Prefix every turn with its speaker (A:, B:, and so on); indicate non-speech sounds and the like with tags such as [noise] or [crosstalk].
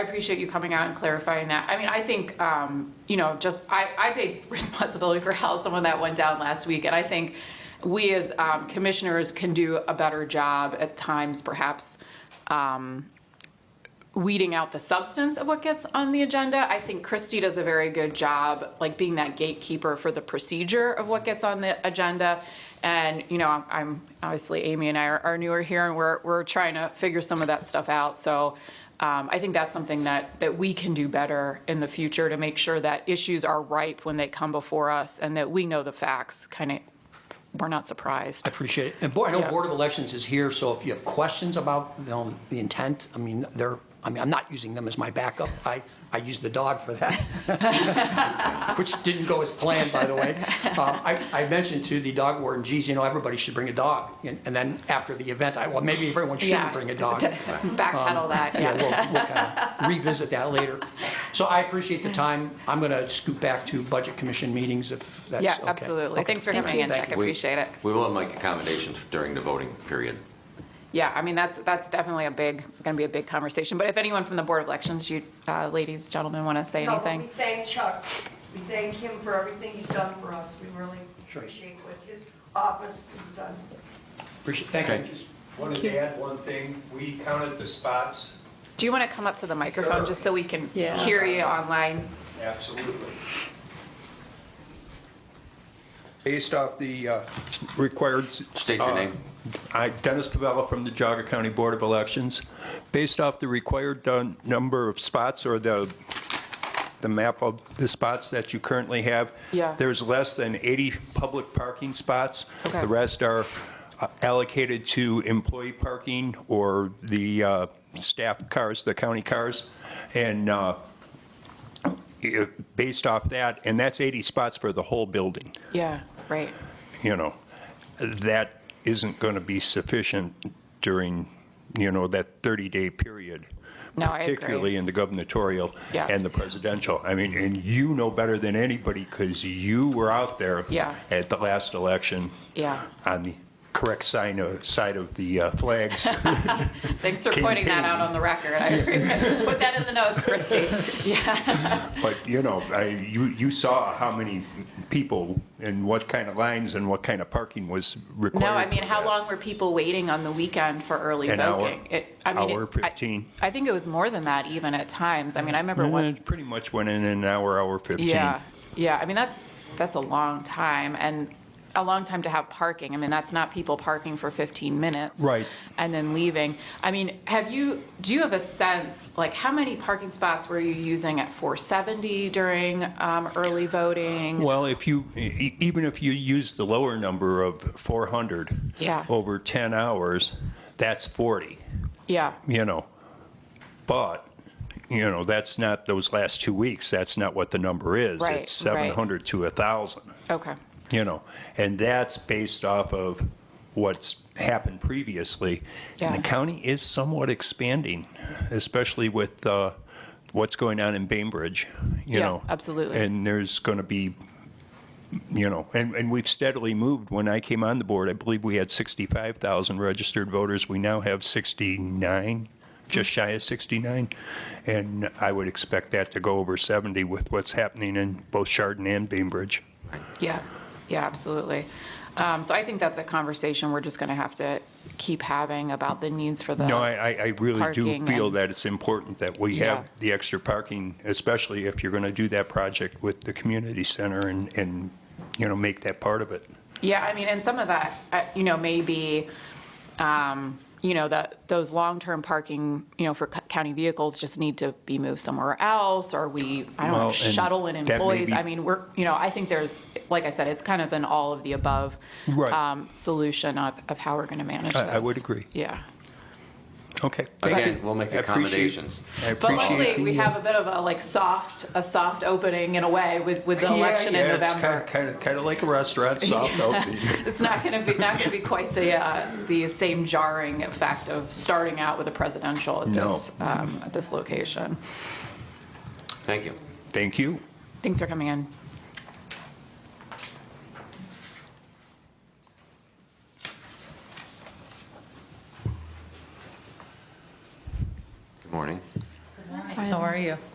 A: I appreciate you coming out and clarifying that. I mean, I think, um, you know, just, I, I take [laughs] responsibility for how someone that went down last week, and I think we as um, commissioners can do a better job at times perhaps um, weeding out the substance of what gets on the agenda. I think Christie does a very good job, like being that gatekeeper for the procedure of what gets on the agenda. And, you know, I'm- I'm, obviously Amy and I are, are newer here and we're, we're trying to figure some of that stuff out. So um, I think that's something that, that we can do better in the future to make sure that issues are ripe when they come before us and that we know the facts, kind of, we're not surprised.
B: I appreciate it. And boy, I know
A: Yeah.
B: Board of Elections is here, so if you have questions about you know, the intent, I mean, they're, I mean, I'm not using them as my backup. I, I used the dog for that, [laughs] which didn't go as planned, by the way. Um, I, I mentioned to the dog warden, geez, you know, everybody should bring a dog. And and then after the event, I, well, maybe everyone
A: Yeah.
B: shouldn't bring a dog.
A: [laughs]
B: Um,
A: Backpedal that,
B: Yeah,
A: yeah.
B: we'll, we'll kind of revisit that later. So I appreciate the time. I'm going to scoot back to Budget Commission meetings if that's
A: Yeah,
B: okay.
A: absolutely.
B: Okay.
A: Thanks for coming in,
B: Thank
A: Jack. I
B: you.
A: appreciate it.
C: We will make accommodations during the voting period.
A: Yeah, I mean, that's, that's definitely a big, going to be a big conversation. But if anyone from the Board of Elections, you uh, ladies, gentlemen, want to say
D: No, but we
A: anything?
D: thank Chuck. We thank him for everything he's done for us. We really
B: Sure.
D: appreciate what his office has done.
B: Appreciate, thank
C: Okay.
B: you.
E: Just wanted to add one thing. We counted the spots.
A: Do you want to come up to the microphone
E: Sure.
A: just so we can
F: Yeah.
A: hear you online?
E: Absolutely. Based off the uh, required.
C: State your
E: uh,
C: name.
E: I, Dennis Pavella from the Geauga County Board of Elections. Based off the required uh, number of spots or the, the map of the spots that you currently have.
A: Yeah.
E: There's less than 80 public parking spots.
A: Okay.
E: The rest are uh, allocated to employee parking or the uh, staff cars, the county cars. And uh, i- based off that, and that's 80 spots for the whole building
A: Yeah, right.
E: you know, that isn't going to be sufficient during, you know, that 30-day period.
A: No, I agree.
E: Particularly in the gubernatorial
A: Yeah.
E: and the presidential. I mean, and you know better than anybody because you were out there
A: Yeah.
E: at the last election
A: Yeah.
E: on the correct sign of, side of the
A: [laughs]
E: uh, flags.
A: Thanks for pointing that out on the record. I [laughs] appreciate- Put that in the notes, Christie. Yeah,
E: But, you know, I, you, you saw how many people and what kind of lines and what kind of parking was required.
A: no, I mean,
E: for
A: how
E: that.
A: long were people waiting on the weekend for early
E: An hour.
A: voting? It- I mean, it-
E: Hour
A: I-
E: 15.
A: I think it was more than that even at times. I mean, I remember
E: And
A: one.
E: it Pretty much went in an hour, hour 15.
A: Yeah, yeah. I mean, that's, that's a long time and a long time to have parking. I mean, that's not people parking for 15 minutes.
E: Right.
A: And then leaving. I mean, have you, do you have a sense, like, how many parking spots were you using at 470 during um, early voting?
E: Well, if you, e- even if you use the lower number of 400
A: Yeah.
E: over 10 hours, that's 40,
A: Yeah,
E: you know. But, you know, that's not those last two weeks. That's not what the number is.
A: Right,
E: It's
A: right.
E: 700 to 1,000,
A: okay,
E: you know. And that's based off of what's happened previously. And
A: Yeah.
E: the county is somewhat expanding, especially with uh, what's going on in Bainbridge, you
A: Yeah,
E: know.
A: absolutely.
E: And there's going to be you know, and, and we've steadily moved. When I came on the board, I believe we had 65,000 registered voters. We now have 69, just shy of 69. And I would expect that to go over 70 with what's happening in both Chardon and Bainbridge.
A: yeah, yeah, absolutely. Um, So I think that's a conversation we're just going to have to keep having about the needs for the.
E: No, I, I- I really do
A: Parking
E: feel
A: and-
E: that it's important that we
A: Yeah.
E: have the extra parking, especially if you're going to do that project with the community center and, and, you know, make that part of it.
A: Yeah, I mean, and some of that, uh, you know, maybe, um, you know, that, those long-term parking, you know, for co- county vehicles just need to be moved somewhere else, or we, I don't
E: Well,
A: know,
E: and
A: shuttle in
E: that may
A: employees.
E: be-
A: I mean, we're, you know, I think there's, like I said, it's kind of been all of the above
E: Right.
A: um, solution of, of how we're gonna manage this.
E: I- I would agree.
A: Yeah.
E: Okay. thank you.
C: Again, we'll make
E: I appreciate-
C: accommodations.
E: I
A: But
E: appreciate
A: hopefully, we
E: the, uh,
A: have a bit of a, like, soft, a soft opening in a way with, with the election in November.
E: Kind of, kind of like a restaurant,
A: [laughs]
E: soft opening.
A: It's not going to be, not going to be quite the, uh, the same jarring effect of starting out with a presidential at
E: No.
A: this, um, at this location.
C: Thank you.
E: Thank you.
A: Thanks for coming in.
C: Good morning.
F: Hi,
A: how are you?